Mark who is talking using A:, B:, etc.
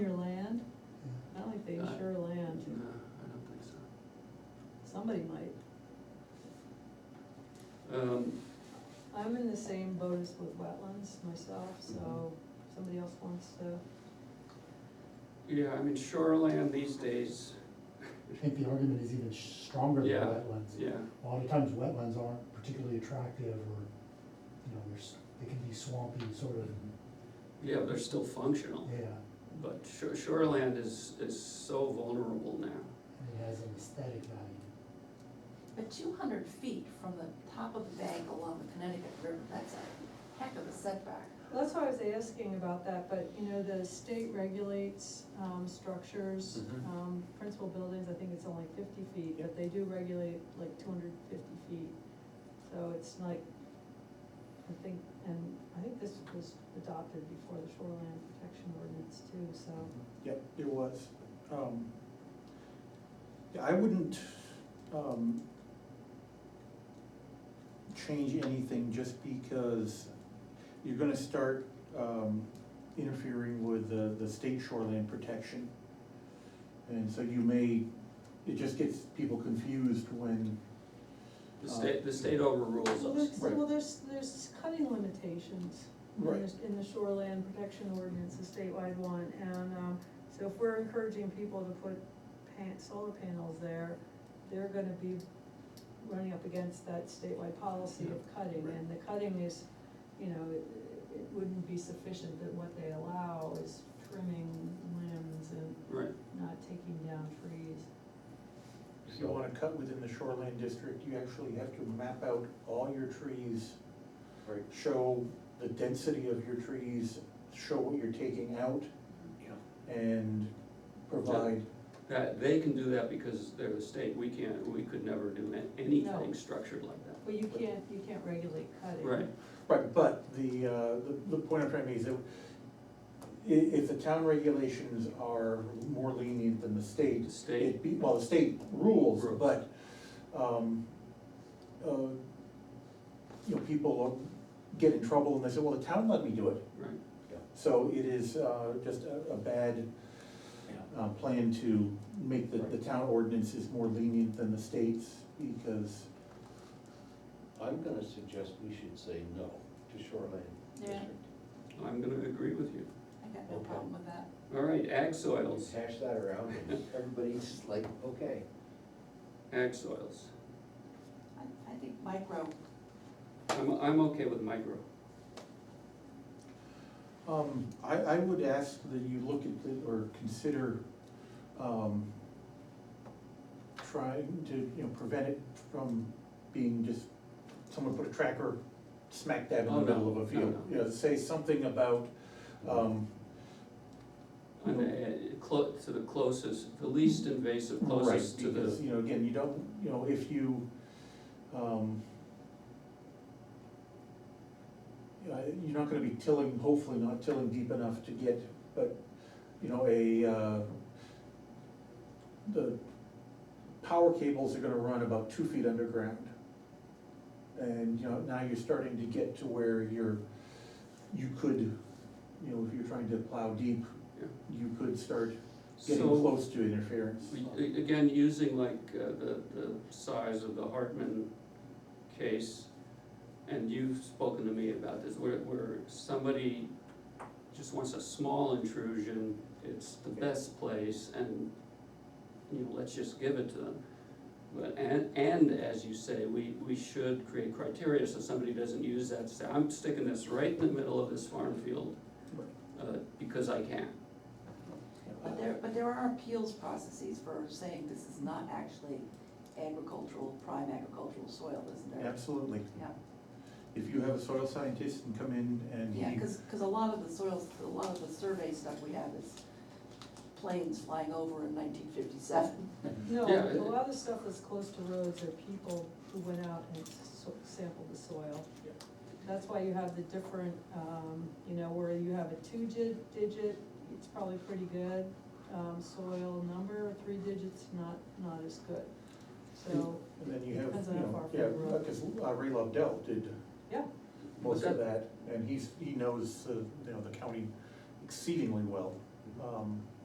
A: Um,
B: the same boat as with wetlands myself, so if somebody else wants to,
A: Yeah, I mean, shoreland these days,
C: I think the argument is even stronger than
A: Yeah.
C: wetlands.
A: yeah,
C: A lot of times wetlands aren't particularly attractive or, you know, there's, they can be swampy sort of,
A: yeah, they're still functional.
C: yeah.
A: But shore, shoreland is, is so vulnerable now.
C: And it has an aesthetic value.
D: But two hundred feet from the top of the bank along the Connecticut River, that's a heck of a setback.
B: well, that's why I was asking about that, but, you know, the state regulates, um, structures,
E: Mhm.
B: um, principal buildings, I think it's only fifty feet, but they do regulate like two hundred fifty feet. So it's like, I think, and I think this was adopted before the shoreline protection ordinance too, so.
F: Yep, it was. Um, Yeah, I wouldn't, um, change anything just because you're gonna start, um, interfering with the, the state shoreline protection. And so you may, it just gets people confused when,
A: The state, the state overrules
B: Well,
A: us.
B: there's,
F: Right.
B: well, there's, there's cutting limitations in
F: Right.
B: the, in the shoreland protection ordinance, the statewide one, and, um, so if we're encouraging people to put pan, solar panels there, they're gonna be running up against that statewide policy of cutting,
F: Right.
B: and the cutting is, you know, it, it wouldn't be sufficient that what they allow is trimming limbs and
A: Right,
B: not taking down trees.
F: if you wanna cut within the shoreline district, you actually have to map out all your trees
E: Right,
F: show the density of your trees, show what you're taking out,
E: yeah.
F: and provide,
A: that, they can do that because they're the state, we can't, we could never do a- anything
B: No.
A: structured like that.
B: But you can't, you can't regulate cutting.
A: Right,
F: right, but the, uh, the, the point I'm trying to make is that i- if the town regulations are more lenient than the state,
A: the state,
F: it be, well, the state rules,
A: Rules.
F: but, um, uh, you know, people get in trouble and they say, well, the town let me do it,
A: right,
F: so it is, uh, just a, a bad uh, plan to make the, the town ordinances more lenient than the states, because,
E: I'm gonna suggest we should say no to shoreline
D: Yeah.
E: district.
A: I'm gonna agree with you.
D: I got no
E: Okay.
D: problem with that.
A: All right, ag soils,
E: Hash that around and everybody's like, okay.
A: ag soils.
D: I, I think micro,
A: I'm, I'm okay with micro.
F: um, I, I would ask that you look at, the- or consider, um, trying to, you know, prevent it from being just, someone put a tracker smack dab in
A: Oh,
F: the
A: no,
F: middle of a
A: no,
F: field.
A: no.
F: You know, say something about, um,
A: And, uh, clo- to the closest, the least invasive, closest to
F: Right, because,
A: the,
F: you know, again, you don't, you know, if you, um, uh, you're not gonna be tilling, hopefully not tilling deep enough to get, but, you know, a, uh, the power cables are gonna run about two feet underground. And, you know, now you're starting to get to where you're, you could, you know, if you're trying to plow deep,
A: Yeah.
F: you could start getting
A: so,
F: close to interference.
A: we- a- again, using like uh, the, the size of the Hartman case, and you've spoken to me about this, where, where somebody just wants a small intrusion, it's the best place, and, you know, let's just give it to them. But, and, and as you say, we, we should create criteria so somebody doesn't use that, to say, I'm sticking this right in the middle of this farm field, uh, because I can.
D: but there, but there are appeals processes for saying this is not actually agricultural, prime agricultural soil, isn't there?
F: Absolutely.
D: Yeah,
F: If you have a soil scientist and come in and
D: yeah,
F: he,
D: cause, 'cause a lot of the soils, a lot of the survey stuff we have is planes flying over in nineteen fifty-seven.
B: No,
A: Yeah,
B: a
A: it-
B: lot of the stuff that's close to roads are people who went out and so- sampled the soil.
F: Yeah.
B: That's why you have the different, um, you know, where you have a two-digit, digit, it's probably pretty good, um, soil number, three digits, not, not as good. So,
F: and then you have,
B: Depends
F: you
B: on how
F: know,
B: far from
F: yeah,
B: the road.
F: because Ray Lobdell did
B: yeah,
F: most of
A: But
F: that, and he's, he knows, uh, you know, the county exceedingly well. Um,